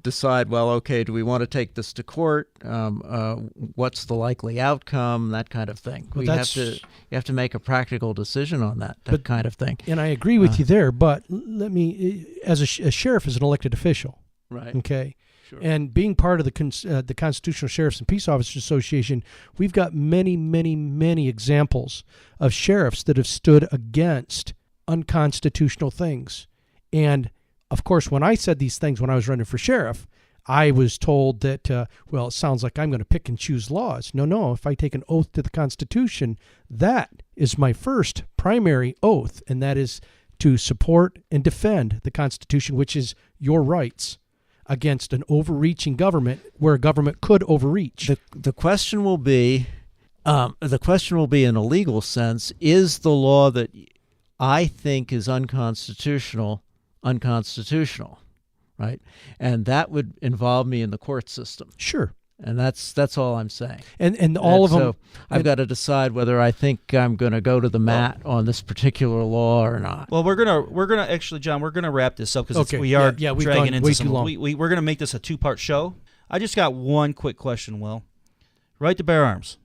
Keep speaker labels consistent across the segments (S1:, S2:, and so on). S1: decide, well, okay, do we want to take this to court? Um, uh, what's the likely outcome? That kind of thing.
S2: Well,
S1: we have
S2: that's-
S1: to you have to make a practical decision on that. That
S2: But-
S1: kind of thing.
S2: And I agree with you there, but l- let me, uh, as a, sh- a sheriff is an elected official,
S1: Right.
S2: okay?
S1: Sure.
S2: And being part of the cons- uh, the Constitutional Sheriffs and Peace Officers Association, we've got many, many, many examples of sheriffs that have stood against unconstitutional things. And of course, when I said these things when I was running for sheriff, I was told that, uh, well, it sounds like I'm going to pick and choose laws. No, no. If I take an oath to the Constitution, that is my first primary oath, and that is to support and defend the Constitution, which is your rights against an overreaching government where a government could overreach.
S1: the the question will be, um, the question will be in a legal sense: is the law that I think is unconstitutional unconstitutional? Right, and that would involve me in the court system,
S2: sure.
S1: and that's that's all I'm saying.
S2: And, and all of
S1: And
S2: them.
S1: So I've got to decide whether I think I'm going to go to the mat on this particular law or not.
S3: Well, we're gonna we're gonna actually, John, we're gonna wrap this up because
S2: Okay.
S3: we are
S2: Yeah, yeah, we've
S3: dragging
S2: gone
S3: into
S2: way
S3: some.
S2: too long.
S3: We, we we're gonna make this a two part show. I just got one quick question. Will, right to bear arms.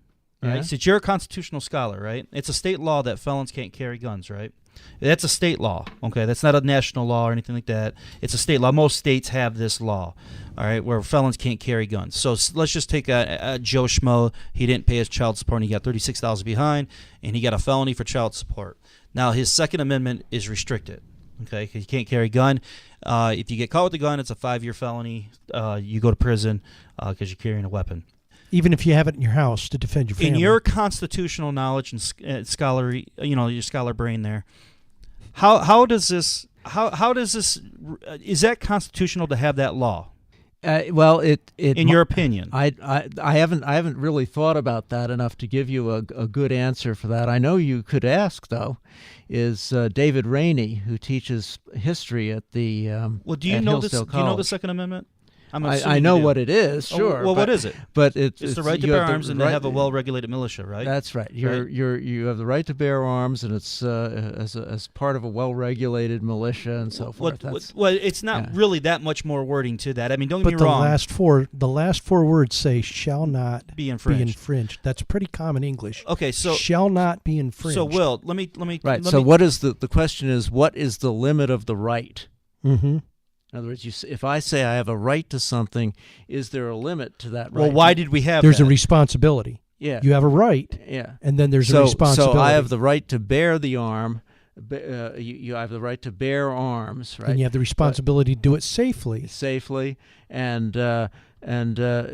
S3: Right,
S1: Yeah.
S3: since you're a constitutional scholar, right? It's a state law that felons can't carry guns, right? That's a state law. Okay, that's not a national law or anything like that. It's a state law. Most states have this law, all right, where felons can't carry guns. So s- let's just take a, a Joe Schmo. He didn't pay his child support. and He got thirty six thousand behind, and he got a felony for child support. Now his Second Amendment is restricted. Okay, 'cause you can't carry a gun. Uh, if you get caught with a gun, it's a five year felony. Uh, you go to prison because you're carrying a weapon
S2: even if you have it in your house to defend your family.
S3: in your constitutional knowledge and sc- uh, scholarly, you know, your scholar brain there, how how does this how how does this uh, is that constitutional to have that law
S1: Uh, well, it it
S3: in
S1: mi-
S3: your opinion?
S1: I, I I haven't I haven't really thought about that enough to give you a, a good answer for that. I know you could ask though, is uh, David Rainey who teaches history at the um,
S3: well, do you
S1: at
S3: know
S1: Hillsdale
S3: this? Do you know the
S1: College.
S3: Second Amendment? I'm assuming
S1: I, I
S3: you
S1: know
S3: do.
S1: what it is.
S3: Oh,
S1: Sure.
S3: well, what
S1: but-
S3: is it?
S1: But it's,
S3: It's, the right to
S1: you
S3: bear
S1: have the
S3: arms and
S1: right-
S3: to have a well-regulated militia, right?
S1: That's right. You're
S3: Right.
S1: you're you have the right to bear arms, and it's uh, as a, as part of a well-regulated militia and so forth.
S3: what,
S1: That's-
S3: what, well, it's not
S1: yeah.
S3: really that much more wording to that. I mean, don't get
S2: but
S3: me
S2: the
S3: wrong.
S2: last four, the last four words say "shall not
S3: be
S2: be
S3: infringed.
S2: infringed." That's pretty common English.
S3: okay, so
S2: shall not be infringed.
S3: so Will, let me let me
S1: Right.
S3: Let
S1: So
S3: me,
S1: what is the the question is what is the limit of the right?
S2: Mm-hmm.
S1: In other words, you, s- if I say I have a right to something, is there a limit to that right?
S3: Well, why did we have?
S2: There's a
S3: that?
S2: responsibility.
S1: yeah
S2: You have a right,
S1: yeah.
S2: and then there's
S1: so
S2: a responsibility.
S1: so I have the right to bear the arm. b- Uh, you, you have the right to bear arms, right?
S2: and you have the responsibility to do it safely.
S1: safely and uh, and uh,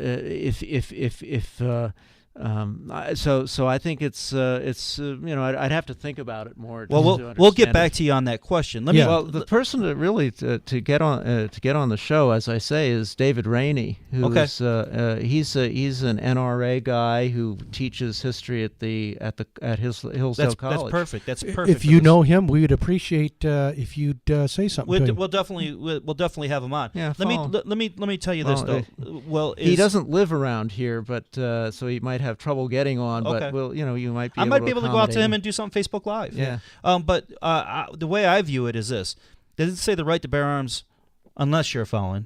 S1: if if if if uh, um, I- so so I think it's uh, it's uh, you know I'd, I'd have to think about it more.
S3: Well,
S1: to-
S3: we'll
S1: to
S3: we'll get
S1: understand
S3: back
S1: it.
S3: to you on that question. Let me
S2: Yeah.
S1: Well, the person that really to, to get on uh, to get on the show, as I say, is David Rainey, who
S3: Okay.
S1: is, uh, uh, he's a, he's an NRA guy who teaches history at the at the at his Hillsdale
S3: that's,
S1: College.
S3: that's perfect. That's perfect.
S2: If
S3: for
S2: you
S3: this.
S2: know him, we would appreciate uh, if you'd uh, say something.
S3: we'll,
S2: to
S3: d-
S2: him.
S3: we'll definitely we'll, we'll definitely have him on.
S1: Yeah,
S3: Let me
S1: follow.
S3: let, let me let me tell you this
S1: Follow,
S3: though. Well,
S1: He doesn't live around here, but uh, so he might have trouble getting on.
S3: Okay.
S1: But well, you know, you might be.
S3: I might be able to go out to
S1: accommodate
S3: him and do something Facebook Live.
S1: Yeah.
S3: Um, but uh, I, the way I view it is this: does it say the right to bear arms unless you're a felon?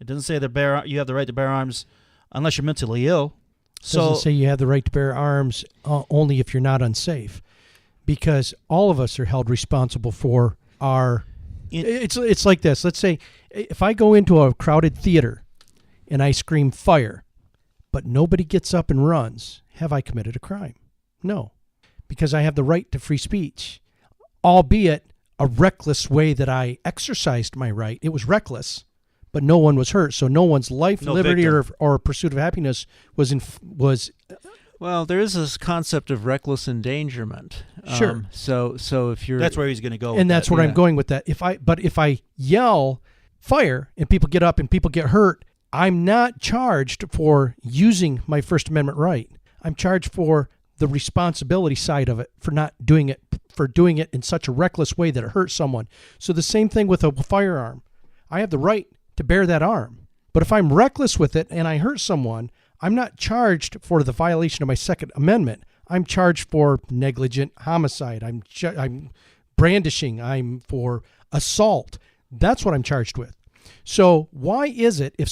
S3: It doesn't say the bear you have the right to bear arms unless you're mentally ill. So
S2: doesn't say you have the right to bear arms uh, only if you're not unsafe, because all of us are held responsible for our.
S3: In-
S2: it's it's like this. Let's say if I go into a crowded theater, and I scream fire, but nobody gets up and runs. Have I committed a crime? No, because I have the right to free speech, albeit a reckless way that I exercised my right. It was reckless, but no one was hurt, so no one's life,
S3: No
S2: liberty,
S3: victim.
S2: or, or pursuit of happiness was in was
S1: Well, there is this concept of reckless endangerment. Um,
S2: Sure.
S1: so so if you're
S3: that's where he's going to go. with
S2: and that's
S3: that.
S2: where
S1: yeah.
S2: I'm going with that. If I but if I yell fire and people get up and people get hurt, I'm not charged for using my First Amendment right. I'm charged for the responsibility side of it for not doing it for doing it in such a reckless way that it hurts someone. So the same thing with a firearm. I have the right to bear that arm. But if I'm reckless with it and I hurt someone, I'm not charged for the violation of my Second Amendment. I'm charged for negligent homicide. I'm ju- I'm brandishing. I'm for assault. That's what I'm charged with. So why is it if